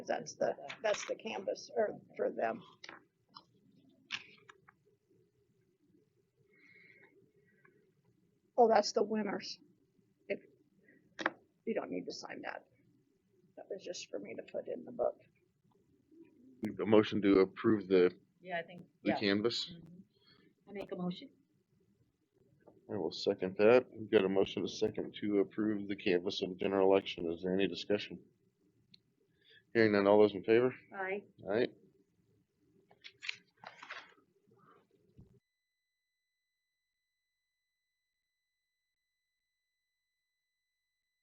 that's the, that's the canvas or for them. Oh, that's the winners. If, you don't need to sign that. That was just for me to put in the book. A motion to approve the, Yeah, I think, the yeah. canvas. Mhm. I make a motion. I will second that. We've got a motion to second to approve the canvas of the general election. Is there any discussion? Hearing none, all those in favor? Aye. Alright,